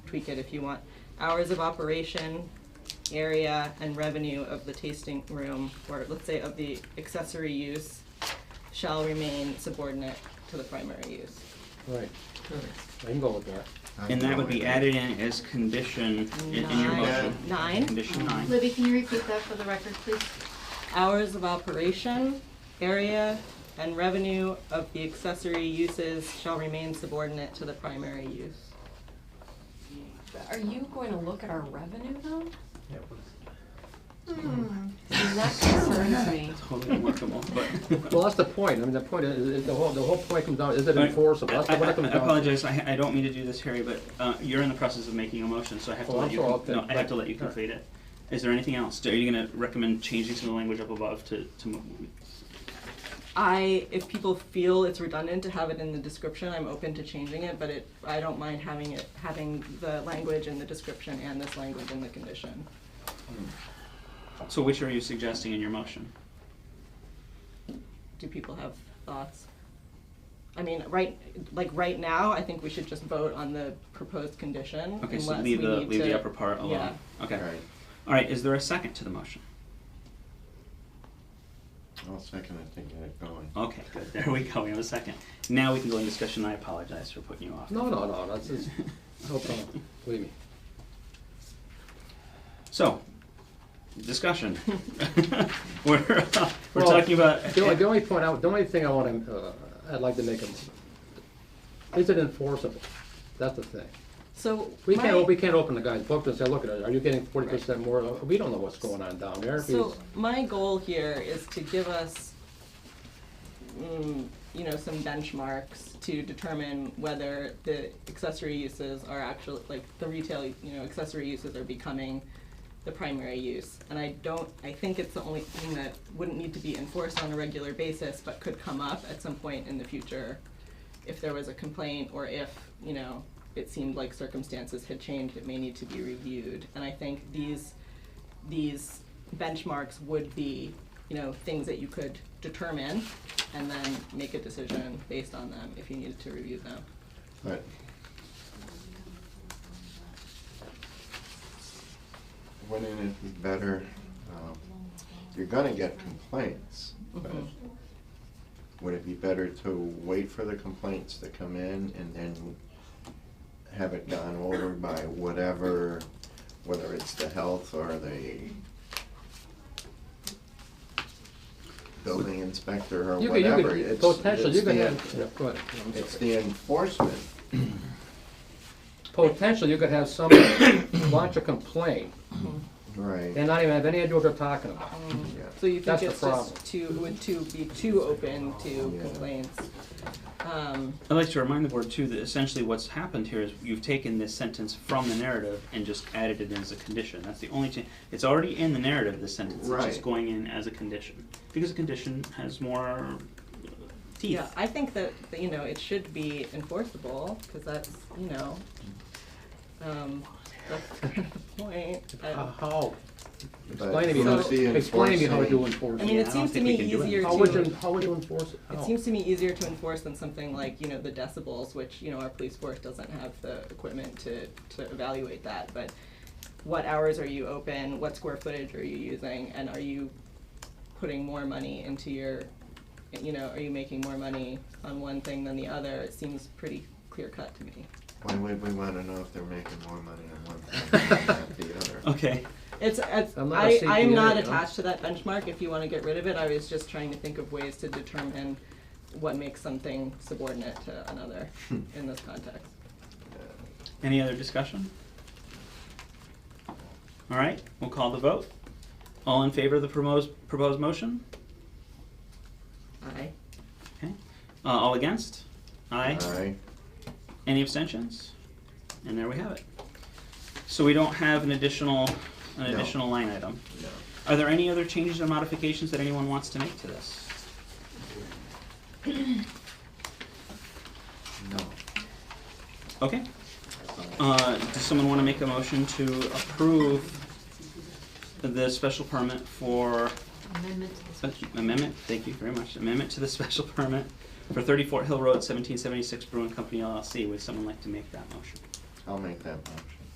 tweak it if you want. Hours of operation, area, and revenue of the tasting room, or let's say of the accessory use, shall remain subordinate to the primary use. Right, I can go with that. And that would be added in as condition in, in your Nine- motion. Nine? Condition nine. Libby, can you repeat that for the record, please? hours of operation, area, and revenue of the accessory uses shall remain subordinate to the primary use. Are you going to look at our revenue though? Hmm. And that concerns me. Totally workable, but. Well, that's the point, I mean, the point is, is the whole, the whole point comes down, is it But enforceable? I- That's what it I- comes I down to. apologize, I, I don't mean to do this, Harry, but, uh, you're in the process of making a motion, so I have to Oh, let I'm you, sorry, I'll com- no, think- I have to right, let you all right. complete it. Is there anything else? Are you gonna recommend changing some of the language up above to, to move? I, if people feel it's redundant to have it in the description, I'm open to changing it, but it, I don't mind having it, having the language in the description and this language in the condition. So which are you suggesting in your motion? Do people have thoughts? I mean, right, like, right now, I think we should just vote on the proposed condition Okay, unless so we need leave to. the, leave the upper part alone. yeah. Okay. All right, All right, is there a second to the motion? I'll second it to get it going. Okay, good, there we go, we have a second. Now we can go in discussion, I apologize for putting you off. No, no, no, that's, it's, no problem, believe me. So, discussion. We're, uh, we're Well, talking about. The only, the only point, I- the only thing I want to, uh, I'd like to make, a- is it enforceable? That's the thing. So. We my- can't, we can't open the guy's book and say, look at it, are you getting forty percent more? We don't know what's going on down there. If So he's- my goal here is to give us, mm, you know, some benchmarks to determine whether the accessory uses are actually, like, the retail, you know, accessory uses are becoming the primary use. And I don't, I think it's the only thing that wouldn't need to be enforced on a regular basis, but could come up at some point in the future if there was a complaint or if, you know, it seemed like circumstances had changed, it may need to be reviewed. And I think these, these benchmarks would be, you know, things that you could determine and then make a decision based on them if you needed to review them. But wouldn't it be better, um, you're gonna get complaints, but Mm-hmm. Mhm. would it be better to wait for the complaints to come in and then have it gone over by whatever, whether it's the health or the building inspector or You could, you whatever? could, It's- potentially, it's you could the- have, yeah, go ahead. I'm sorry. It's the enforcement Potentially, you could have somebody launch a complaint Right. and not even have any idea what they're talking about. Yeah. So you That's think the it's problem. just too, would too, be too open to Yeah. complaints? Um, I'd like to remind the board too that essentially what's happened here is you've taken this sentence from the narrative and just added it as a condition. That's the only change. It's already in the narrative, this sentence. It's just Right. going in as a condition. Because a condition has more teeth. yeah, I think that, that, you know, it should be enforceable, cause that's, you know, um, that's kind of the point. And- How? But Explain to me who's how, the explain to me how you enforcing- enforce I mean, it. Yeah, it I don't seems to think we me can do it. Oh. easier to. How would you, how would you enforce it? It How? seems to me easier to enforce than something like, you know, the decibels, which, you know, our police force doesn't have the equipment to, to evaluate that, but what hours are you open, what square footage are you using, and are you putting more money into your, you know, are you making more money on one thing than the other? It seems pretty clear cut to me. Why would we wanna know if they're making more money on one thing than on the other? Okay. It's, it's, I'm not a I, I'm CPA, not no. attached to that benchmark, if you wanna get rid of it, I was just trying to think of ways to determine what makes something subordinate to another Hmm. in this context. Any other discussion? All right, we'll call the vote. All in favor of the proposed, proposed motion? Aye. Okay. Uh, all against? Aye. Aye. Any abstentions? And there we have it. So we don't have an additional, an No. additional line item. No. Are there any other changes or modifications that anyone wants to make to this? No. Okay. Uh, does someone want to make a motion to approve the special permit for Amendment to the special amendment, thank you very much, amendment to the special permit for thirty-four Hill Road, seventeen seventy-six Brewing Company LLC? Would someone like to make that motion? I'll make that motion.